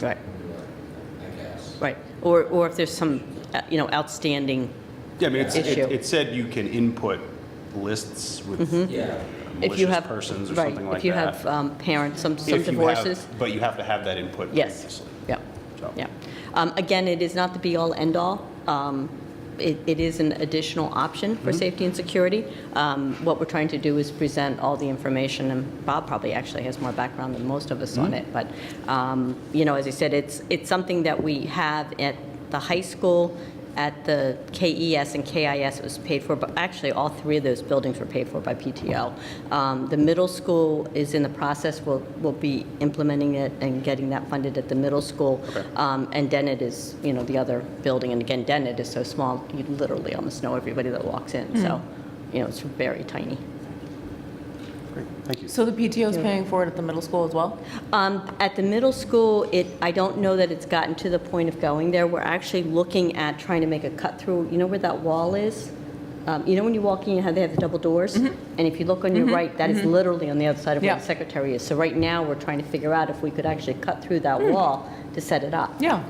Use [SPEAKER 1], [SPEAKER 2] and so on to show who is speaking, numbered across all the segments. [SPEAKER 1] Right,
[SPEAKER 2] I guess.
[SPEAKER 1] right. Or, or if there's some, uh, you know, outstanding,
[SPEAKER 3] Yeah, I mean, it's, it,
[SPEAKER 1] Issue. Mm-hmm.
[SPEAKER 3] it said you can input lists with uh,
[SPEAKER 2] Yeah.
[SPEAKER 1] if you
[SPEAKER 3] malicious
[SPEAKER 1] have.
[SPEAKER 3] persons or
[SPEAKER 1] right,
[SPEAKER 3] something like that.
[SPEAKER 1] If you have um, parents, some, some
[SPEAKER 3] If you have-
[SPEAKER 1] divorces.
[SPEAKER 3] But you have to have that input
[SPEAKER 1] Yes,
[SPEAKER 3] previously.
[SPEAKER 1] yeah,
[SPEAKER 3] So-
[SPEAKER 1] yeah. Um, Again, it is not the be-all, end-all. Um, It it is an additional option
[SPEAKER 3] Mm-hmm.
[SPEAKER 1] for safety and security. Um, What we're trying to do is present all the information, and Bob probably actually has more background than most of
[SPEAKER 3] Mm-hmm.
[SPEAKER 1] us on it, but, um, you know, as I said, it's, it's something that we have at the high school, at the KES and KIS, it was paid for, but actually, all three of those buildings were paid for by PTO. Um, The middle school is in the process, we'll, we'll be implementing it and getting that funded at the middle school. Um, And Dennett is, you know, the other building, and again, Dennett is so small, you literally almost know everybody that walks in, so, you know, it's very tiny.
[SPEAKER 3] Great, thank you.
[SPEAKER 4] So the PTO is paying for it at the middle school as well?
[SPEAKER 1] Um, At the middle school, it, I don't know that it's gotten to the point of going there. We're actually looking at trying to make a cut through, you know where that wall is? Um, You know when you walk in, you have, they have the double doors? And if you look on your right, that is literally on the other side of where the
[SPEAKER 4] Yeah.
[SPEAKER 1] secretary is. So right now, we're trying to figure out if we could actually cut through that wall to set it up.
[SPEAKER 4] Yeah.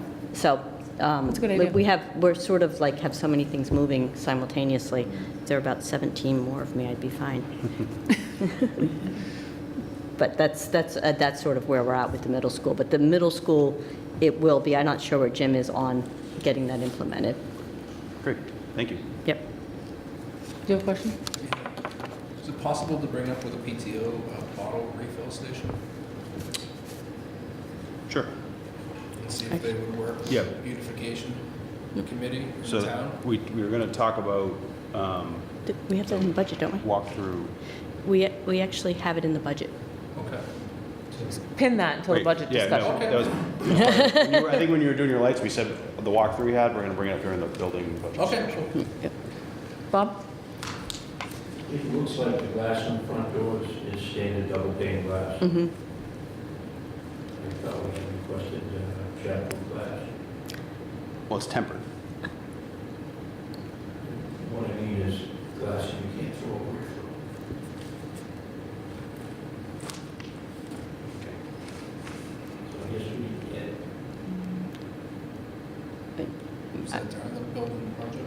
[SPEAKER 1] So. That's
[SPEAKER 4] a good idea.
[SPEAKER 1] We have, we're sort of like, have so many things moving simultaneously. If there are about 17 more of me, I'd be fine. But that's, that's, uh, that's sort of where we're at with the middle school. But the middle school, it will be, I'm not sure where Jim is on getting that implemented.
[SPEAKER 3] Great, thank you.
[SPEAKER 1] Yep.
[SPEAKER 4] Do you have a question?
[SPEAKER 2] Is it possible to bring up with a PTO a uh, bottle refill station
[SPEAKER 3] Sure.
[SPEAKER 2] and see if they would work? with
[SPEAKER 3] Yeah.
[SPEAKER 2] the Beautification committee in
[SPEAKER 3] So
[SPEAKER 2] town?
[SPEAKER 3] we, we were going to talk about um,
[SPEAKER 1] Th- We have that in the budget, don't we?
[SPEAKER 3] walkthrough.
[SPEAKER 1] We, we actually have it in the budget.
[SPEAKER 2] Okay.
[SPEAKER 4] Pin that until the
[SPEAKER 3] Wait,
[SPEAKER 4] budget
[SPEAKER 3] yeah, no,
[SPEAKER 4] discussion.
[SPEAKER 3] that was- when you were- I think when you were doing your lights, we said the walkthrough we had, we're going to bring it up during the building budget.
[SPEAKER 2] Okay, sure.
[SPEAKER 4] Bob?
[SPEAKER 5] It looks like the glass on the front doors is standard double pane glass. I
[SPEAKER 1] Mhm.
[SPEAKER 5] thought we had requested uh, chapel glass.
[SPEAKER 3] Well, it's tempered.
[SPEAKER 5] What I mean is glass you can't throw away. So I guess we, yeah,
[SPEAKER 2] Is that during the building project?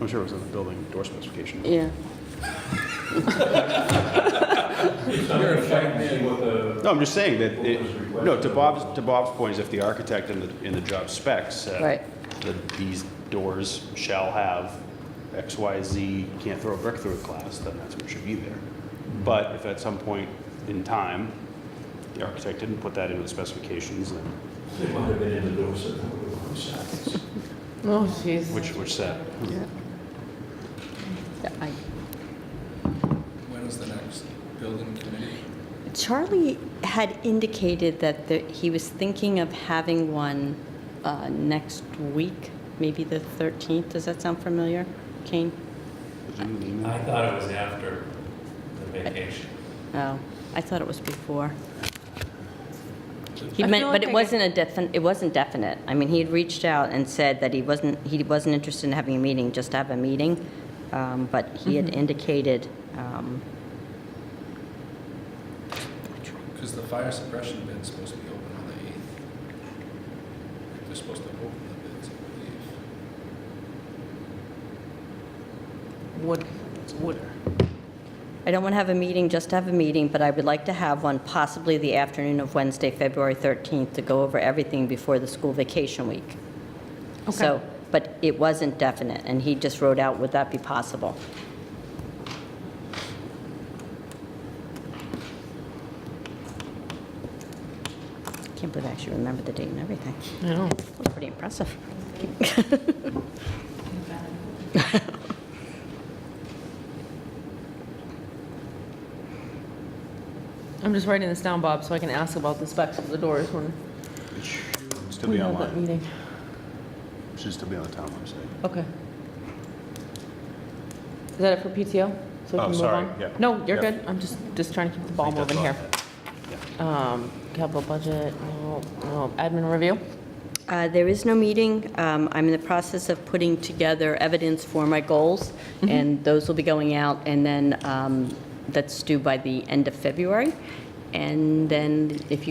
[SPEAKER 3] I'm sure it was in the building door specification.
[SPEAKER 1] Yeah.
[SPEAKER 5] it's not
[SPEAKER 2] You're a
[SPEAKER 5] going to check and
[SPEAKER 2] fan.
[SPEAKER 5] see what the,
[SPEAKER 3] No, I'm just saying that, it-
[SPEAKER 5] What was requested?
[SPEAKER 3] no, to Bob's, to Bob's point is if the architect in the, in the job specs said
[SPEAKER 1] Right.
[SPEAKER 3] that these doors shall have X, Y, Z, can't throw a brick through a glass, then that's what should be there. But if at some point in time, the architect didn't put that into the specifications, then,
[SPEAKER 5] they might have been in the doors that were on the sides.
[SPEAKER 4] Oh, jeez.
[SPEAKER 3] which, which said,
[SPEAKER 1] I-
[SPEAKER 2] When is the next building committee?
[SPEAKER 1] Charlie had indicated that the- he was thinking of having one uh, next week, maybe the 13th. Does that sound familiar, Kane?
[SPEAKER 6] I thought it was after the vacation.
[SPEAKER 1] Oh, I thought it was before. He
[SPEAKER 4] I
[SPEAKER 1] meant,
[SPEAKER 4] feel
[SPEAKER 1] but
[SPEAKER 4] like
[SPEAKER 1] it
[SPEAKER 4] I
[SPEAKER 1] wasn't a definite, it wasn't definite. I mean, he had reached out and said that he wasn't, he wasn't interested in having a meeting, just to have a meeting. Um, But he had
[SPEAKER 4] Mm-hmm.
[SPEAKER 1] indicated, um,
[SPEAKER 2] Because the fire suppression bid's supposed to be open on the 8th. They're supposed to open the bids, I believe.
[SPEAKER 4] Would, would,
[SPEAKER 1] I don't want to have a meeting, just to have a meeting, but I would like to have one possibly the afternoon of Wednesday, February 13th, to go over everything before the school vacation week. So,
[SPEAKER 4] Okay.
[SPEAKER 1] but it wasn't definite, and he just wrote out, would that be possible? Can't believe I actually remember the date and everything.
[SPEAKER 4] I know.
[SPEAKER 1] That's Pretty impressive.
[SPEAKER 4] I'm just writing this down, Bob, so I can ask about the specs of the doors when
[SPEAKER 3] still
[SPEAKER 4] we
[SPEAKER 3] be
[SPEAKER 4] have that
[SPEAKER 3] online,
[SPEAKER 4] meeting.
[SPEAKER 3] should still be on the town website.
[SPEAKER 4] Okay. Is that it for PTO? So we
[SPEAKER 3] Oh,
[SPEAKER 4] can move
[SPEAKER 3] sorry,
[SPEAKER 4] on?
[SPEAKER 3] yeah.
[SPEAKER 4] No, you're
[SPEAKER 3] Yeah.
[SPEAKER 4] good. I'm just, just trying to keep the ball
[SPEAKER 3] I think
[SPEAKER 4] moving here.
[SPEAKER 3] that's all I had. Yeah.
[SPEAKER 4] Um, capital budget, no, no, admin review?
[SPEAKER 1] Uh, There is no meeting. Um, I'm in the process of putting together evidence for my goals, and those will be going out, and then um, that's due by the end of February. And then if you